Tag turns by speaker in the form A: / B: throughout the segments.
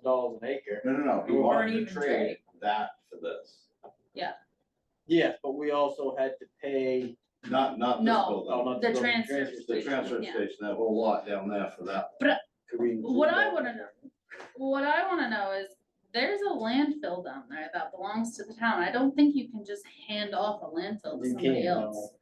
A: thousand dollars an acre.
B: No, no, no, he
A: We
C: weren't
B: wanted to
C: even
B: trade that for this,
A: Yes, but we also had to pay,
B: not, not this
C: No.
A: oh,
B: building,
A: not
C: The
A: the building
C: transfer
A: transfer
B: the
A: station.
B: transfer
C: Yeah.
B: station, that whole lot down there for that.
A: Could we include
C: What I
A: that?
C: wanna know, what I wanna know is, there's a landfill down there that belongs to the town, I don't think you can just hand off a landfill to
A: You
C: somebody
A: can't,
C: else.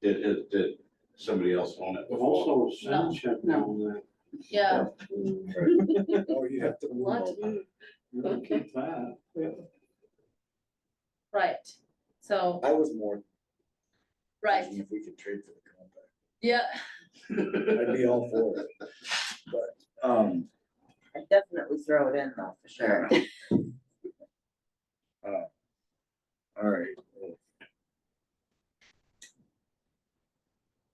B: Did, did, did somebody else own it
D: But
B: before?
D: also sound check on that.
C: Yeah,
D: Oh, you have to.
C: What?
D: You don't keep that.
C: right, so,
E: I was more.
C: right,
E: If we could trade for the compact,
C: yeah,
E: I'd be all for it. But, um,
F: I definitely throw it in though, for sure.
E: all right,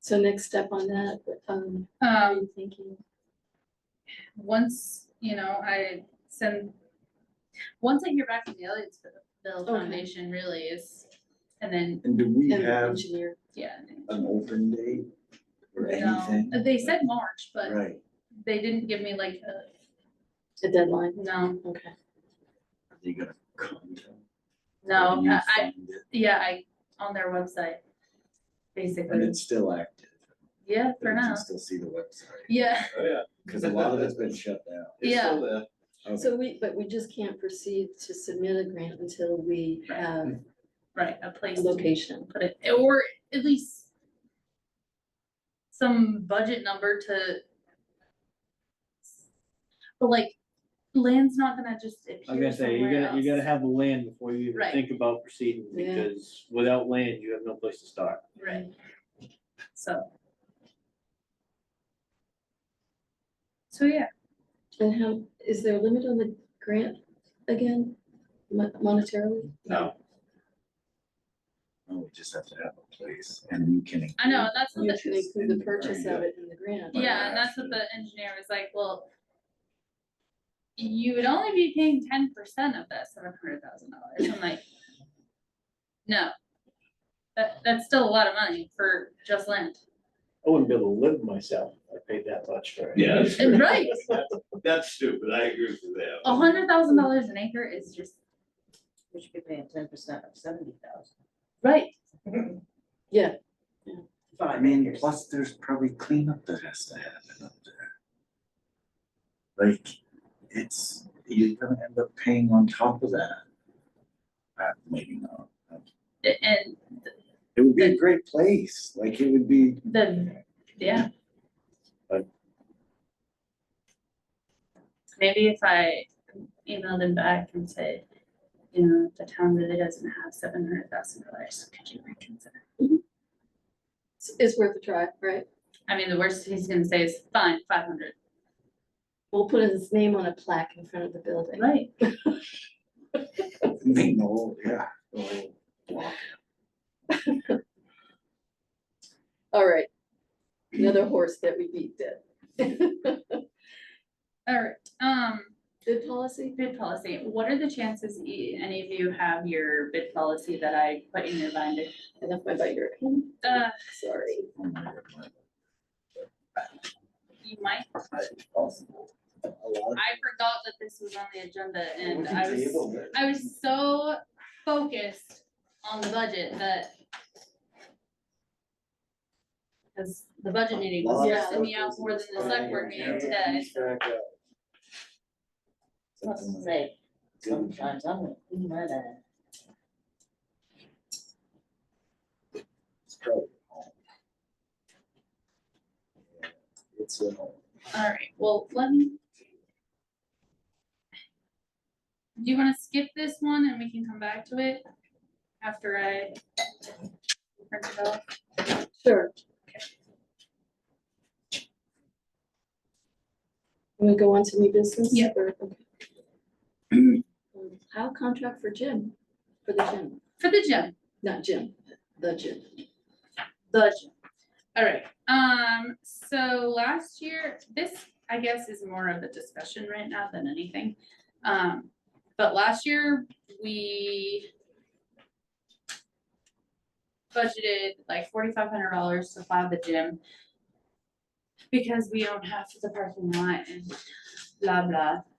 G: So next step on that, um, what are
C: um,
G: you thinking?
C: once, you know, I send, once I hear back from the Elliotsville
G: Okay.
C: Foundation really is, and then,
E: and do we
G: And the
E: have
G: engineer,
C: yeah.
E: an open date or
C: No,
E: anything?
C: they said March, but
E: Right,
C: they didn't give me like, a-
G: the deadline,
C: no,
G: okay.
E: are they gonna contact?
C: no,
E: you
C: I, I-
E: find it?
C: yeah, I, on their website,
E: And
C: basically,
E: it's still active.
C: yeah, for
E: You
C: now,
E: can still see the website,
C: yeah.
B: Oh, yeah.
E: cause a lot of it's been shut down.
B: It's still there.
E: Okay.
G: So we, but we just can't proceed to submit a grant until we
C: Right.
G: have
C: Right, a
G: a
C: place to
G: location.
C: put it, or at least some budget number to. But like, land's not gonna just
A: I was gonna
C: appear
A: say, you
C: somewhere
A: gotta, you gotta
C: else.
A: have the land before you even
C: Right.
A: think about proceeding,
G: Yeah.
A: because without land, you have no place to start.
C: Right. So. So, yeah,
G: And how, is there a limit on the grant again, mo- monetarily?
B: No.
E: Oh, we just have to have a place and you can.
C: I know, and that's what
G: You
C: the,
G: can include the purchase of it in the grant.
C: yeah, and that's what the engineer was like, well. You would only be paying ten percent of that seven hundred thousand dollars, I'm like. No. That, that's still a lot of money for just land.
A: I wouldn't be able to live myself, if I paid that much for it.
B: Yeah, that's true.
C: Right,
B: That's stupid, I agree with you there.
C: a hundred thousand dollars an acre is just,
F: We should be paying ten percent of seventy thousand.
C: right,
G: Yeah,
E: I mean, plus there's probably cleanup that has to happen up there. Like, it's, you're gonna end up paying on top of that. Uh, maybe not.
C: A- and
E: It would be a great place, like it would be,
C: the, yeah.
E: Right.
C: Maybe if I emailed him back and said, you know, the town really doesn't have seven hundred thousand dollars, could you reconsider?
G: it's, it's worth a try, right?
C: I mean, the worst he's gonna say is, fine, five hundred,
G: We'll put his name on a plaque in front of the building.
C: right,
E: make the whole, yeah, the whole block.
G: All right, another horse that we beat dead.
C: alright, um,
G: Good policy?
C: bid policy, what are the chances e- any of you have your bid policy that I put in your binder?
G: I left my binder at home,
C: Uh,
G: sorry.
E: Oh my God, my-
C: you might
E: it's possible. A lot of-
C: I forgot that this was on the agenda and
B: We can
C: I was,
B: table it.
C: I was so focused on the budget that. Cause the budget meeting was
G: Yeah.
C: stressing me out more than the select board meeting today.
F: Let's
E: something like-
F: say, sometimes I'm gonna clean that out.
E: It's probably at home. Yeah, It's uh, at home.
C: Alright, well, let me. Do you wanna skip this one and we can come back to it after I? print it off?
G: Sure. Can we go on to new business?
C: Yeah.
G: Or- Um, How contract for Jim, for the gym,
C: For the gym.
G: not Jim, the gym.
C: budget. All right, um, so last year, this, I guess, is more of a discussion right now than anything. Um, but last year, we budgeted like forty-five hundred dollars to fly the gym because we own half of the parking lot and blah, blah.